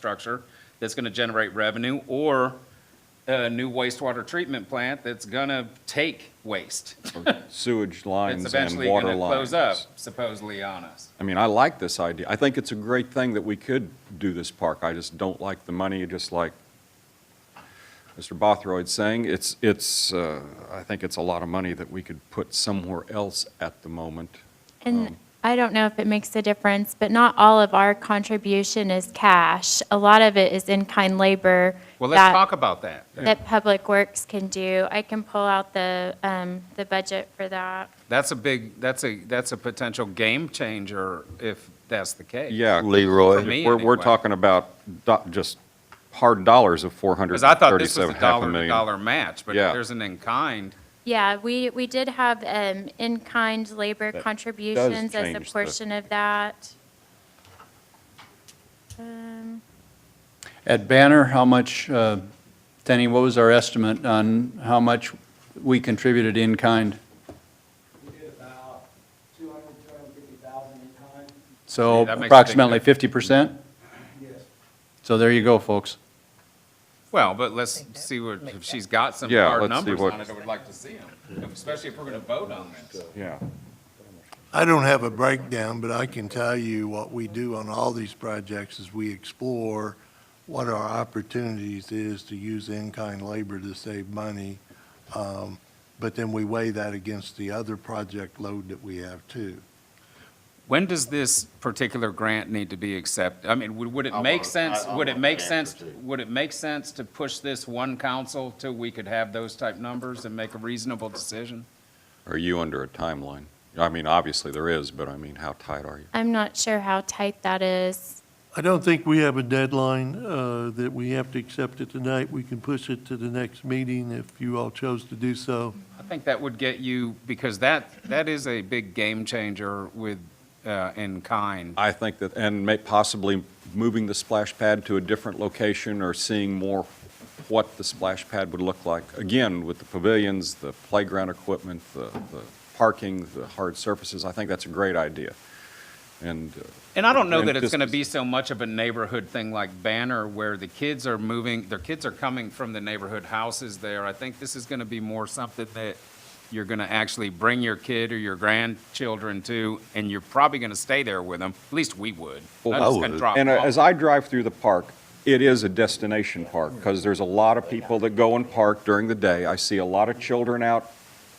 infrastructure that's gonna generate revenue, or a new wastewater treatment plant that's gonna take waste. sewage It's lines and eventually water gonna close up lines. supposedly on us. I mean, I like this idea. I think it's a great thing that we could do this park. I just don't like the money, just like Mr. Bothroyd's saying. It's, it's, uh, I think it's a lot of money that we could put somewhere else at the moment. Um, And I don't know if it makes a difference, but not all of our contribution is cash. A lot of it is in-kind labor Well, let's that, talk about that. that Public Works can do. I can pull out the, um, the budget for that. That's a big, that's a, that's a potential game changer if that's the case. Yeah. For Leroy. me, We're, we're anyway. talking about do- just hard dollars of Because I thought this was 437, a half a dollar to million. dollar match, but Yeah. if there's an in-kind, Yeah, we, we did have, um, in-kind labor contributions as a change the- portion of that. Um, At Banner, how much, uh, Tenny, what was our estimate on how much we contributed in kind? We did about 200, 250,000 in time. Yeah, So that makes a big approximately 50%? Yes. So there you go, folks. well, but let's see what, if she's got some Yeah, hard let's see numbers what- on it, I would like to see them, especially if we're gonna vote on this. Yeah. I don't have a breakdown, but I can tell you what we do on all these projects is we explore what our opportunities is to use in-kind labor to save money. Um, But then we weigh that against the other project load that we have too. When does this particular grant need to be accepted? I mean, would would it make sense, would it make sense, would it make sense to push this one council till we could have those type numbers and make a reasonable decision? Are you under a timeline? I mean, obviously there is, but I mean, how tight are you? I'm not sure how tight that is. I don't think we have a deadline uh, that we have to accept it tonight. We can push it to the next meeting if you all chose to do so. I think that would get you, because that, that is a big game changer with, uh, in kind. I think that, and may, possibly moving the splash pad to a different location or seeing more what the splash pad would look like. Again, with the pavilions, the playground equipment, the, the parking, the hard surfaces, I think that's a great idea. And, uh, And I don't know that And it's this going to is- be so much of a neighborhood thing like Banner, where the kids are moving, their kids are coming from the neighborhood houses there. I think this is going to be more something that you're going to actually bring your kid or your grandchildren to, and you're probably going to stay there with them. At least we would. Well, Not I just gonna would. drop and them uh, off. as I drive through the park, it is a destination park, because there's a lot of people that go and park during the day. I see a lot of children out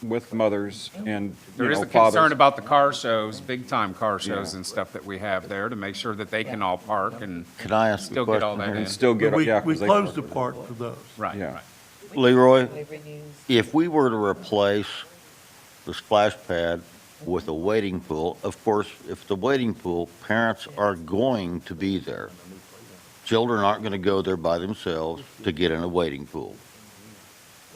with mothers and, you There is know, a concern fathers. about the car shows, big-time car shows Yeah. and stuff that we have there, to make sure that they can all park and, Can I ask Still a get all that And question? still get, We yeah. 'cause we they- closed the park for those. right, Yeah. right. here? Leroy, Labor News. if we were to replace the splash pad with a wading pool, of course, if the wading pool, parents are going to be there. Children aren't going to go there by themselves to get in a wading pool.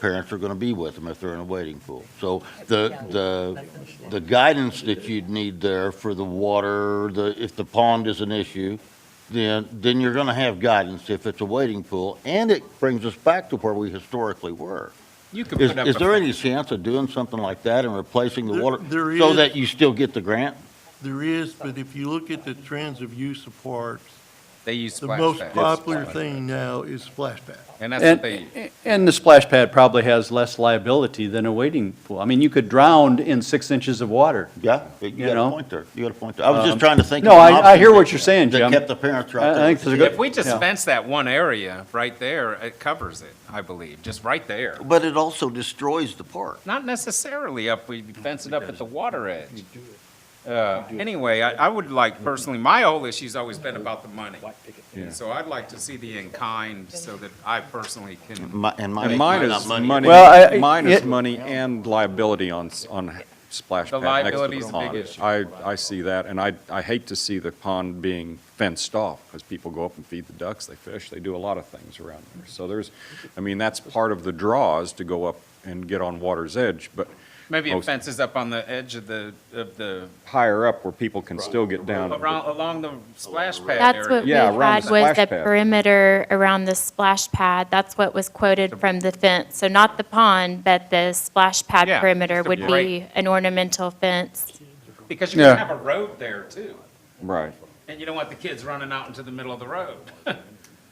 Parents are going to be with them if they're in a wading pool. So the, the, the guidance that you'd need there for the water, the, if the pond is an issue, then, then you're going to have guidance if it's a wading pool. And it brings us back to where we historically were. You could Is, put up is a there any chance of doing something like that and replacing the There- water? there So is. that you still get the grant? There is, but if you look at the trends of use of parks, They use the splash most pads. popular thing now is splash pad. And that's what And, they, and the splash pad probably has less liability than a wading pool. I mean, you could drown in six inches of water. Yeah, you You got know? a point there. You got a point there. I was Um, just trying to think. no, of an I- I option hear what that- you're saying, Jim. That kept the parents I- right I there. think there's a good- If we just yeah. fence that one area right there, it covers it, I believe, just right there. But it also destroys the park. Not necessarily up, we fence it up at the water edge. Uh, Anyway, I, I would like personally, my whole issue's always been about the money. So I'd like to see the in-kind so that I personally can, My- And mine, And mine not is money, Well, I- mine is it- money and liability on, s- on splash The pad next to liability's the a big pond. issue. I, I see that, and I, I hate to see the pond being fenced off, because people go up and feed the ducks, they fish, they do a lot of things around there. So there's, I mean, that's part of the draw is to go up and get on water's edge, but maybe it Most- fences up on the edge of the, of the, higher up where people can still get down. around, along the splash pad area. That's what we Yeah, around had the was splash the pad. perimeter around the splash pad. That's what was quoted from the fence. So not the pond, but the splash pad Yeah, perimeter just a would be break. an ornamental fence. Because you can Yeah. have a road there too, Right. and you don't want the kids running out into the middle of the road.